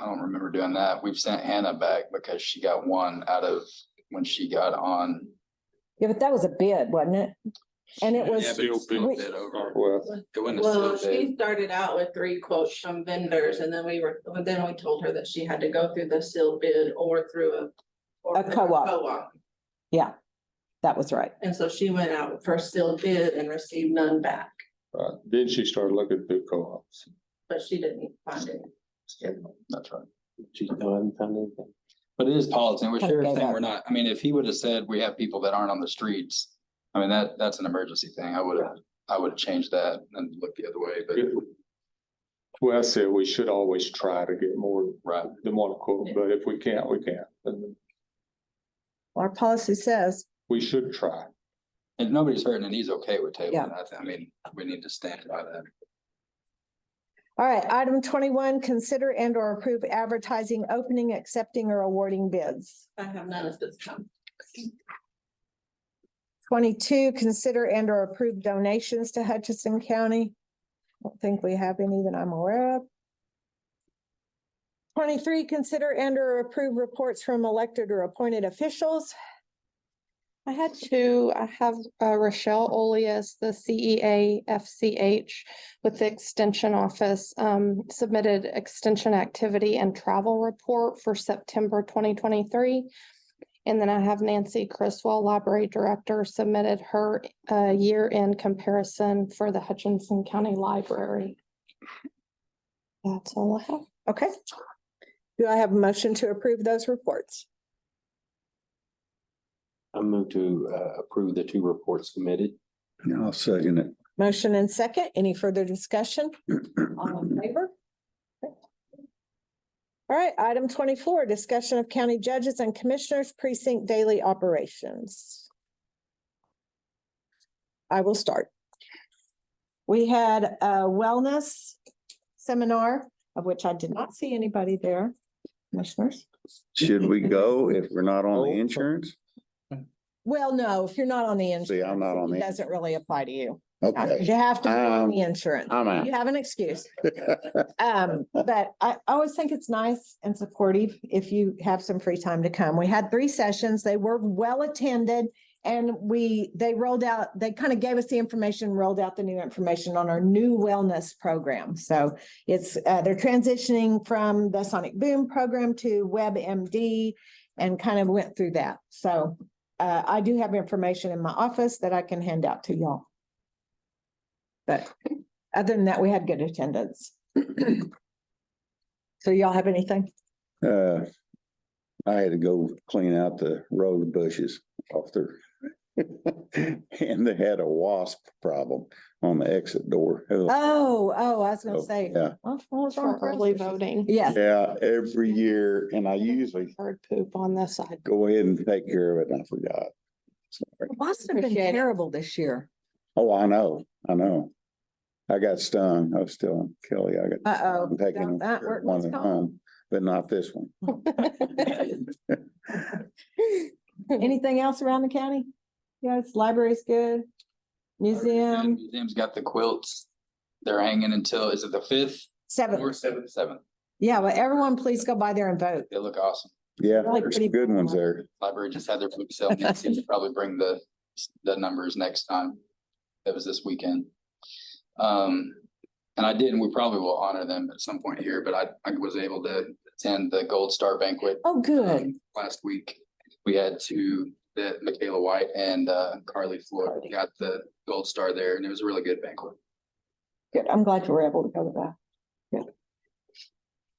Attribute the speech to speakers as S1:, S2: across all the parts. S1: I don't remember doing that. We've sent Hannah back because she got one out of when she got on.
S2: Yeah, but that was a bid, wasn't it? And it was-
S1: Yeah, but it's still a bid over.
S3: Well,
S1: It wouldn't have
S4: Well,
S1: still
S4: she
S1: bid.
S4: started out with three quotes from vendors and then we were, but then we told her that she had to go through the sealed bid or through a. or
S2: A
S4: through
S2: co-op.
S4: Co-op.
S2: That was right.
S4: And so she went out for sealed bid and received none back,
S3: uh, then she started looking through co-ops.
S4: but she didn't find it.
S1: That's right.
S5: She's no, I haven't found anything.
S1: But it is politics. We're
S2: Kinda
S1: sure
S2: gave
S1: saying
S2: up.
S1: we're not, I mean, if he would have said we have people that aren't on the streets, I mean, that, that's an emergency thing. I would have, I would have changed that and looked the other way, but
S3: Well, I said we should always try to get more
S1: right.
S3: than one quote, but if we can't, we can't. And
S2: Our policy says.
S3: we should try.
S1: And nobody's hurting and he's okay with
S2: Yeah.
S1: tabling that. I mean, we need to stand by that.
S2: All right, item twenty-one, consider and or approve advertising, opening, accepting or awarding bids.
S4: I have none at this time.
S2: Twenty-two, consider and or approve donations to Hutchinson County. Don't think we have any that I'm aware of. Twenty-three, consider and or approve reports from elected or appointed officials.
S6: I had two. I have uh, Rochelle Olias, the E CEA FCH with the Extension Office, um, submitted extension activity and travel report for September twenty twenty-three. And then I have Nancy Criswell, Library Director, submitted her uh, year-end comparison for the Hutchinson County Library. That's all I have.
S2: Okay. Do I have a motion to approve those reports?
S5: I move to uh, approve the two reports submitted.
S7: I'll second it.
S2: Motion and second. Any further discussion? All in favor? All right, item twenty-four, discussion of county judges and commissioners precinct daily operations. I will start. We had a wellness seminar, of which I did not see anybody there, commissioners.
S7: Should we go if we're not on
S2: Oh.
S7: the insurance?
S2: Well, no, if you're not on the insurance.
S7: See, I'm not on
S2: it
S7: the-
S2: Doesn't really apply to you.
S7: Okay.
S2: You have to be on
S7: Um,
S2: the insurance.
S7: I'm out.
S2: You have an excuse. Um, but I I always think it's nice and supportive if you have some free time to come. We had three sessions. They were well attended. And we, they rolled out, they kind of gave us the information, rolled out the new information on our new wellness program. So it's, uh, they're transitioning from the Sonic Boom program to WebMD and kind of went through that. So, uh, I do have information in my office that I can hand out to y'all. But other than that, we had good attendance. So y'all have anything?
S7: Uh, I had to go clean out the road bushes off there. And they had a wasp problem on the exit door. Oh,
S2: Oh, oh, I was gonna say.
S7: Yeah,
S2: well, what was
S6: For
S2: our
S6: early
S2: process?
S6: voting.
S2: Yes,
S7: yeah, every year, and I usually
S6: Bird poop on the side.
S7: go ahead and take care of it, and I forgot. Sorry.
S2: Boston has been
S6: Appreciate it.
S2: terrible this year.
S7: Oh, I know, I know. I got stung, I was still on Kelly, I got.
S2: Uh-oh.
S7: I'm Taking
S2: That work
S7: one
S2: was
S7: at
S2: gone.
S7: home, but not this one.
S2: Anything else around the county? Yes, library's good. Museum,
S1: Museum's got the quilts. They're hanging until, is it the fifth?
S2: seven.
S1: Or seventh, seventh.
S2: Yeah, well, everyone please go by there and vote.
S1: They look awesome.
S7: Yeah,
S2: Like
S7: there's
S2: pretty
S7: good
S2: brown
S7: ones
S2: ones.
S7: there.
S1: Library just had their book sale. Nancy will probably bring the, the numbers next time. That was this weekend. Um, and I did, and we probably will honor them at some point here, but I, I was able to attend the Gold Star banquet.
S2: Oh, good.
S1: um, Last week, we had two, that Michaela White and, uh, Carly Floyd
S2: Carly.
S1: got the Gold Star there, and it was a really good banquet.
S2: Good. I'm glad you were able to go to that.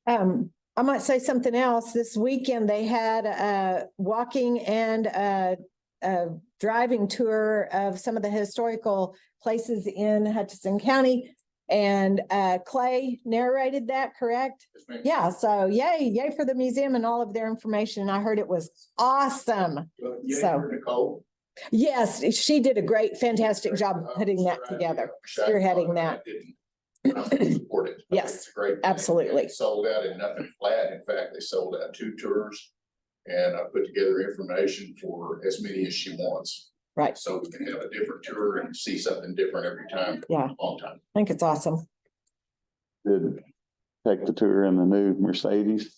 S2: Good. Um, I might say something else. This weekend, they had a walking and a, a driving tour of some of the historical places in Hutchinson County. And uh, Clay narrated that, correct? Yeah, so yay, yay for the museum and all of their information. I heard it was awesome. So. Yes, she did a great, fantastic job putting that together, spearheading that.
S8: Support it.
S2: Yes,
S8: It's a great thing.
S2: absolutely.
S8: They Sold out in nothing flat. In fact, they sold out two tours. And I put together information for as many as she wants.
S2: Right.
S8: So we can have a different tour and see something different every time.
S2: Yeah.
S8: Long time.
S2: I think it's awesome.
S3: Did
S7: take the tour in the new Mercedes.